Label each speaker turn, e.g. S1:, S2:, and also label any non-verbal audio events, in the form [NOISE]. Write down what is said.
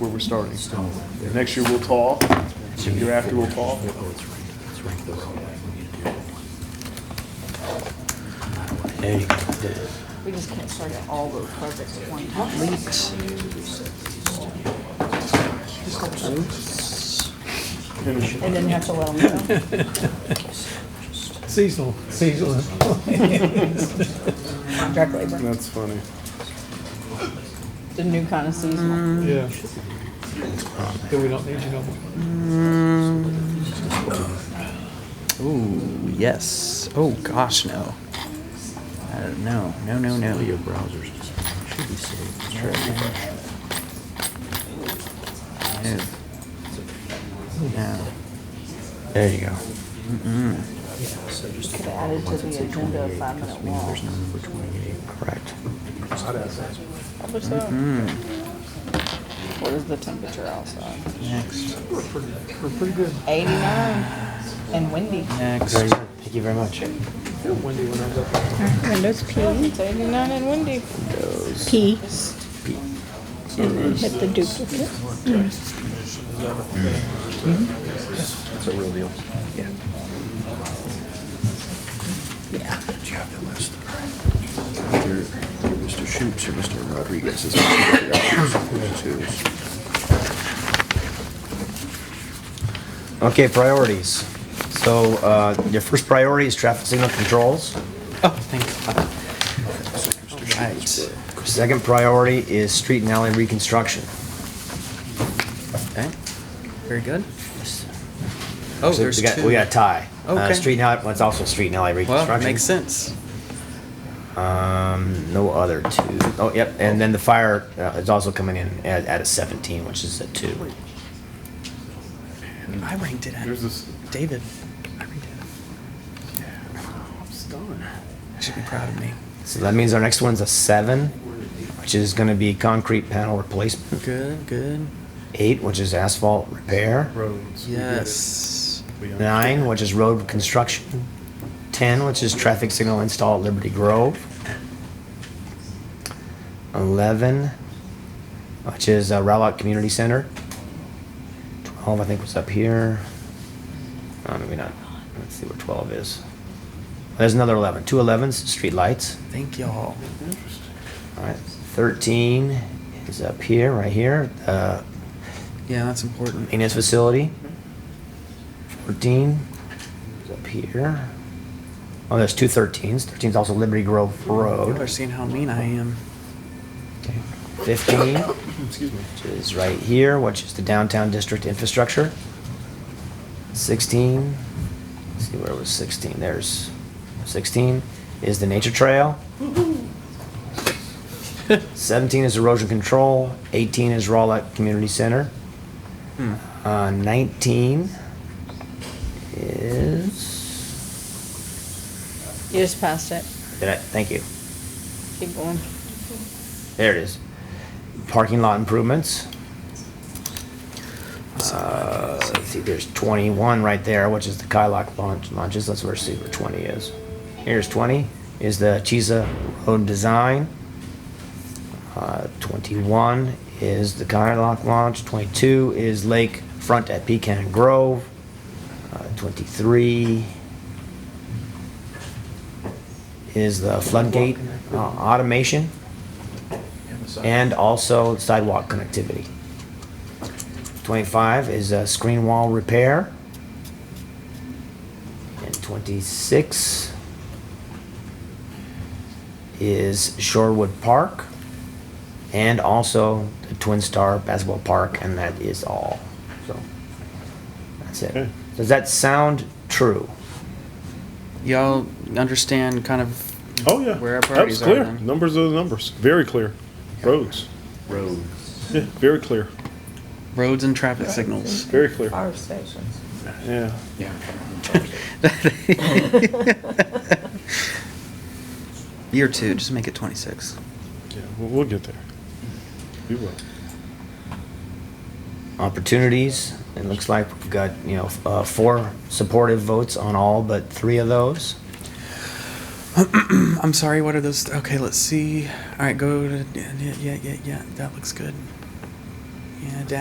S1: where we're starting. Next year we'll talk, the year after we'll talk.
S2: There you go.
S3: We just can't start at all those projects at one time. And then you have to let them go.
S4: Seasonal, seasonal.
S3: Contract labor,
S1: That's funny.
S3: the new kind of seasonal.
S4: Yeah. Then we don't need you no more.
S2: Ooh, yes. Oh, gosh, no. I don't know. No, no, no. Your browsers should be saved. No. No. There you go.
S3: Could have added Mm-hmm. to the agenda a five-minute wall.
S2: There's no number 28. Correct.
S3: What's up? What is the temperature outside?
S2: Next.
S3: Eighty-nine and windy.
S2: Next. Thank you very much.
S5: Windows P,
S3: It's eighty-nine and windy.
S5: P. And then hit the duplicate.
S6: Do you have the list? Either Mr. Shoops or Mr. Rodriguez is the options, who's who's.
S2: Okay, priorities.
S7: So, uh, your first priority is traffic signal controls.
S2: Oh, thanks. Right.
S7: Second priority is street and alley reconstruction.
S2: Okay. Very good. Oh,
S7: So
S2: there's
S7: we got-
S2: two.
S7: We got a tie. Uh,
S2: Okay.
S7: Street and alley, well, it's also street and alley
S2: Well,
S7: reconstruction.
S2: makes sense.
S7: Um, no other two. Oh, yep, and then the fire uh, is also coming in at, at a seventeen, which is a two.
S2: I ranked it
S1: There's
S2: out.
S1: this,
S2: David, I ranked it
S1: I'm stunned.
S2: out. You should be proud of me.
S7: So that means our next one's a seven, which is gonna be concrete panel replacement.
S2: Good, good.
S7: Eight, which is asphalt repair.
S1: Roads. we get it.
S2: Yes.
S1: We understand.
S7: Nine, which is road construction. Ten, which is traffic signal install at Liberty Grove. Eleven, which is uh, Rowlett Community Center. Twelve, I think, was up here. Uh, maybe not. Let's see where twelve is. There's another eleven. Two elevens, street lights.
S2: Thank y'all.
S7: All right. Thirteen is up here, right here. Uh,
S2: Yeah, that's important.
S7: maintenance facility. Fourteen is up here. Oh, there's two thirteens. Thirteen's also Liberty Grove
S2: People are
S7: Road.
S2: seeing how mean I am.
S7: Fifteen
S1: [COUGHS] Excuse me.
S7: which is right here, which is the downtown district infrastructure. Sixteen, let's see where was sixteen? There's sixteen is the nature trail. Seventeen is erosion control. Eighteen is Rawlett Community Center.
S2: Hmm.
S7: Uh, 19 is.
S3: You just passed it.
S7: Did I? Thank you.
S3: Keep going.
S7: There it is. Parking lot improvements. Uh, let's see, there's 21 right there, which is the Kylock launch, launches. That's where Super 20 is. Here's 20 is the Chisa Road Design. Uh, 21 is the Kylock launch. 22 is Lake Front at Pecan Grove. Uh, 23 is the floodgate uh, automation and also sidewalk connectivity. 25 is uh, screen wall repair. And 26 is Shorewood Park and also the Twin Star Basketball Park, and that is all. So that's
S1: Okay.
S7: it. Does that sound true?
S2: Y'all understand kind of
S1: Oh, yeah.
S2: Where our
S1: That was
S2: priorities are
S1: clear.
S2: then.
S1: Numbers are the numbers. Very clear. Roads. Roads. Yeah, very clear.
S2: roads and traffic [LAUGHS] signals.
S1: Very clear.
S3: Fire stations.
S1: Yeah.
S2: Year two, just make it 26.
S1: Yeah. We'll, we'll get there. We will.
S7: opportunities. It looks like we've got, you know, uh, four supportive votes on all but three of those.
S2: I'm sorry, what are those? Okay, let's see. All right, go to. Yeah, yeah, yeah, yeah. That looks good.
S8: Yeah, down